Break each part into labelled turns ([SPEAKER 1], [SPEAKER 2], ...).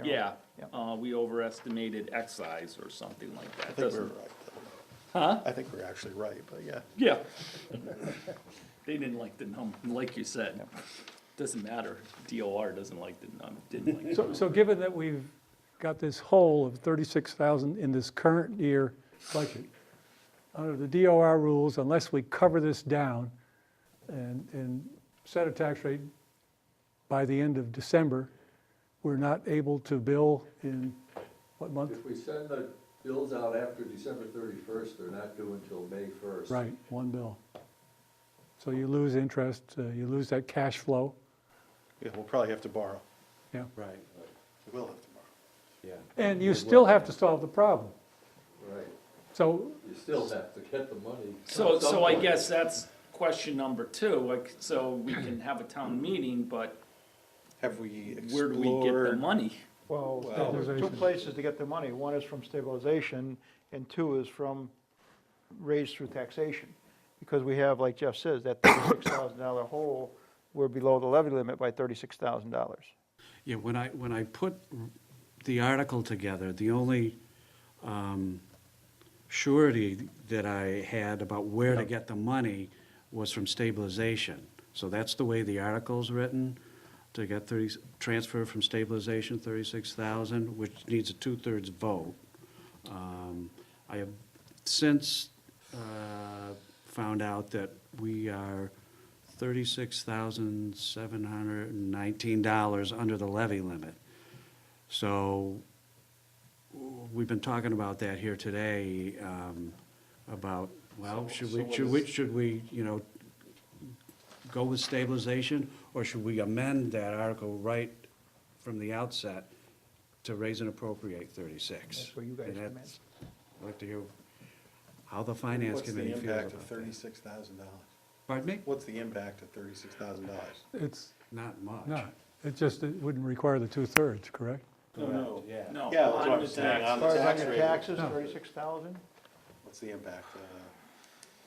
[SPEAKER 1] Um,
[SPEAKER 2] uh, we overestimated excise or something like that.
[SPEAKER 1] I think we were
[SPEAKER 2] Doesn't-
[SPEAKER 1] right. though.
[SPEAKER 2] Huh?
[SPEAKER 1] I think we we're actually right, but yeah.
[SPEAKER 2] Yeah. They didn't like the num, like you said. Doesn't matter. DOR doesn't like the num, didn't like. the
[SPEAKER 3] So,
[SPEAKER 2] num.
[SPEAKER 3] so given that we've got this hole of 36,000 in this current year budget, under the DOR rules, unless we cover this down and, and set a tax rate by the end of December, we're not able to bill in what month?
[SPEAKER 4] If we send the bills out after December thirty-first, they're not due until May first.
[SPEAKER 3] Right, one bill. So you lose interest, uh, you lose that cash flow,
[SPEAKER 1] Yeah, we'll probably have to borrow.
[SPEAKER 3] yeah.
[SPEAKER 5] Right,
[SPEAKER 1] We will have to borrow.
[SPEAKER 5] yeah.
[SPEAKER 3] And you still have to solve the problem.
[SPEAKER 4] Right,
[SPEAKER 3] So
[SPEAKER 4] you still have to get the money.
[SPEAKER 2] So,
[SPEAKER 4] at some
[SPEAKER 2] so I
[SPEAKER 4] point.
[SPEAKER 2] guess that's question number two, like, so we can have a town meeting, but
[SPEAKER 1] Have we
[SPEAKER 2] where do we get the
[SPEAKER 1] explored?
[SPEAKER 2] money?
[SPEAKER 6] Well,
[SPEAKER 1] Well-
[SPEAKER 6] there's two places to get the money. One is from stabilization, and two is from raised through taxation. Because we have, like Jeff says, that thirty-six thousand dollar hole, we're below the levy limit by thirty-six thousand dollars.
[SPEAKER 5] Yeah, when I, when I put the article together, the only um, surety that I had about where to get the money was from stabilization. So that's the way the article's written, to get thirty, transfer from stabilization thirty-six thousand, which needs a two-thirds vote. Um, I have since uh, found out that we are thirty-six thousand seven hundred and nineteen dollars under the levy limit. So we've been talking about that here today, um, about, well,
[SPEAKER 1] So-
[SPEAKER 5] should
[SPEAKER 1] so
[SPEAKER 5] we,
[SPEAKER 1] what
[SPEAKER 5] should we,
[SPEAKER 1] is-
[SPEAKER 5] should we, you know, go with stabilization, or should we amend that article right from the outset to raise and appropriate thirty-six?
[SPEAKER 6] That's where you guys
[SPEAKER 5] And
[SPEAKER 6] come in.
[SPEAKER 5] that's- I'd like to hear how the finance
[SPEAKER 1] What's the
[SPEAKER 5] committee feels about
[SPEAKER 1] impact of
[SPEAKER 5] that.
[SPEAKER 1] thirty-six thousand dollars?
[SPEAKER 5] Pardon me?
[SPEAKER 1] What's the impact of thirty-six thousand dollars?
[SPEAKER 3] it's
[SPEAKER 5] Not much.
[SPEAKER 3] not, it just, it wouldn't require the two-thirds, correct?
[SPEAKER 1] No, no.
[SPEAKER 5] Yeah.
[SPEAKER 2] No.
[SPEAKER 1] Yeah, that's what
[SPEAKER 2] on
[SPEAKER 1] I'm
[SPEAKER 2] the
[SPEAKER 1] saying. um,
[SPEAKER 2] tax.
[SPEAKER 1] On
[SPEAKER 6] As
[SPEAKER 1] the
[SPEAKER 6] far as
[SPEAKER 1] tax
[SPEAKER 6] on your
[SPEAKER 1] rate,
[SPEAKER 6] taxes, thirty-six thousand,
[SPEAKER 1] what's the impact? uh,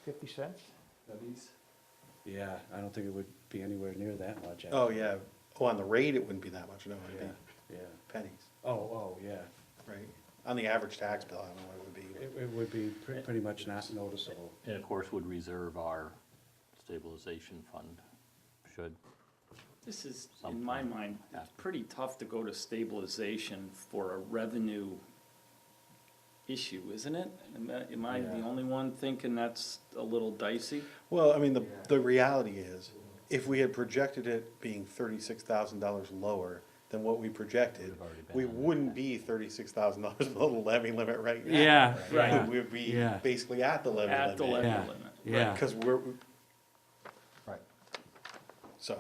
[SPEAKER 6] fifty cents?
[SPEAKER 4] Levies?
[SPEAKER 5] Yeah, I don't think it would be anywhere near that much.
[SPEAKER 1] Oh, yeah. Oh, on the rate, it wouldn't be that much. No, it'd
[SPEAKER 5] Yeah,
[SPEAKER 1] be
[SPEAKER 5] yeah.
[SPEAKER 1] pennies,
[SPEAKER 5] Oh, oh, yeah.
[SPEAKER 1] right? On the average tax bill, I don't know what it would be.
[SPEAKER 5] It, it would be pre- pretty much not noticeable.
[SPEAKER 7] And of course, would reserve our stabilization fund, should.
[SPEAKER 2] This is, in my mind, it's pretty tough to go to stabilization for a revenue issue, isn't it? Am I- Am I the
[SPEAKER 5] Yeah.
[SPEAKER 2] only one thinking that's a little dicey?
[SPEAKER 1] Well, I mean, the, the reality is, if we had projected it being thirty-six thousand dollars lower than what we projected,
[SPEAKER 7] Would've already been
[SPEAKER 1] we
[SPEAKER 7] under
[SPEAKER 1] wouldn't
[SPEAKER 7] that.
[SPEAKER 1] be thirty-six thousand dollars below the levy limit right now.
[SPEAKER 5] Yeah,
[SPEAKER 2] Right.
[SPEAKER 1] We'd be
[SPEAKER 5] Yeah.
[SPEAKER 1] basically at the levy limit.
[SPEAKER 2] At the levy
[SPEAKER 5] Yeah.
[SPEAKER 2] limit.
[SPEAKER 5] yeah.
[SPEAKER 1] Because we're,
[SPEAKER 6] Right.
[SPEAKER 1] so,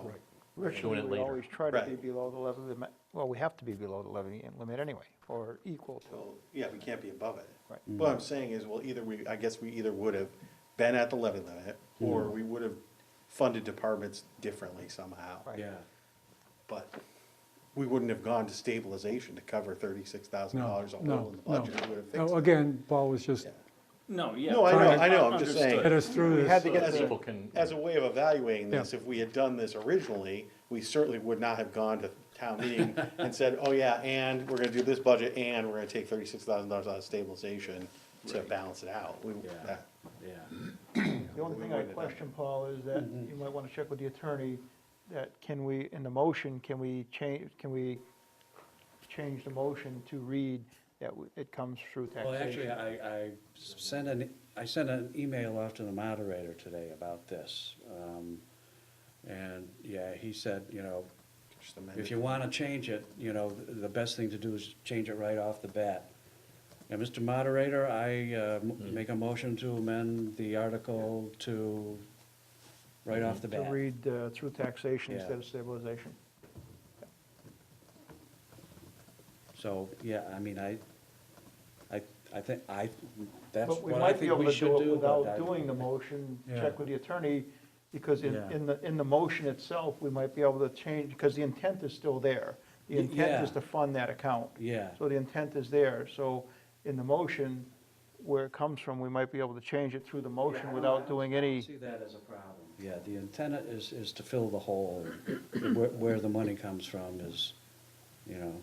[SPEAKER 7] Doing
[SPEAKER 6] Originally,
[SPEAKER 7] it
[SPEAKER 6] we
[SPEAKER 7] later.
[SPEAKER 6] always try to be
[SPEAKER 1] Right.
[SPEAKER 6] below the levy limit, well, we have to be below the levy limit anyway, or equal to.
[SPEAKER 1] well, yeah, we can't be above it.
[SPEAKER 6] Right.
[SPEAKER 1] What I'm saying is, well, either we, I guess we either would have been at the levy limit, or we would have funded departments differently somehow.
[SPEAKER 6] Right.
[SPEAKER 5] Yeah.
[SPEAKER 1] But we wouldn't have gone to stabilization to cover thirty-six thousand
[SPEAKER 3] No,
[SPEAKER 1] dollars a hole
[SPEAKER 3] no,
[SPEAKER 1] in the
[SPEAKER 3] no. Oh,
[SPEAKER 1] budget. We would have fixed
[SPEAKER 3] No,
[SPEAKER 1] it.
[SPEAKER 3] again, Paul was just,
[SPEAKER 1] Yeah.
[SPEAKER 2] No, yeah.
[SPEAKER 1] No, I know-
[SPEAKER 2] trying to-
[SPEAKER 1] I know, I'm just saying.
[SPEAKER 2] understood.
[SPEAKER 3] get us through
[SPEAKER 6] We had
[SPEAKER 3] this.
[SPEAKER 6] to get the,
[SPEAKER 7] People can,
[SPEAKER 1] As a way of evaluating this,
[SPEAKER 3] Yeah.
[SPEAKER 1] if we had done this originally, we certainly would not have gone to town meeting and said, oh yeah, and we're gonna do this budget, and we're gonna take thirty-six thousand dollars out of stabilization to balance it out. We-
[SPEAKER 5] Yeah.
[SPEAKER 1] that-
[SPEAKER 5] Yeah.
[SPEAKER 6] The only thing I question, Paul, is that
[SPEAKER 5] Mm-hmm.
[SPEAKER 6] you might want to check with the attorney, that can we, in the motion, can we change, can we change the motion to read that w- it comes through
[SPEAKER 5] Well, actually,
[SPEAKER 6] taxation?
[SPEAKER 5] I, I sent an, I sent an email off to the moderator today about this. Um, And, yeah, he said, you know,
[SPEAKER 1] just amend
[SPEAKER 5] if
[SPEAKER 1] it.
[SPEAKER 5] you want to change it, you know, th- the best thing to do is change it right off the bat. Now, Mr. Moderator, I uh, m- make a motion to amend the article to, right off the
[SPEAKER 6] To
[SPEAKER 5] bat.
[SPEAKER 6] read uh, through taxation
[SPEAKER 5] Yeah.
[SPEAKER 6] instead of stabilization.
[SPEAKER 5] So, yeah, I mean, I, I, I think, I, that's
[SPEAKER 6] But we
[SPEAKER 5] what I
[SPEAKER 6] might be
[SPEAKER 5] think
[SPEAKER 6] able
[SPEAKER 5] we
[SPEAKER 6] to
[SPEAKER 5] should
[SPEAKER 6] do it
[SPEAKER 5] do. but
[SPEAKER 6] without
[SPEAKER 5] I-
[SPEAKER 6] doing the motion,
[SPEAKER 5] Yeah.
[SPEAKER 6] check with the attorney, because in,
[SPEAKER 5] Yeah.
[SPEAKER 6] in the, in the motion itself, we might be able to change, because the intent is still there. The
[SPEAKER 5] Y-
[SPEAKER 6] intent is
[SPEAKER 5] yeah.
[SPEAKER 6] to fund that account.
[SPEAKER 5] Yeah,
[SPEAKER 6] So the intent is there, so in the motion, where it comes from, we might be able to change it through the motion without doing any,
[SPEAKER 5] see that as a problem. Yeah, the intent is, is to fill the hole, where, where the money comes from is, you know,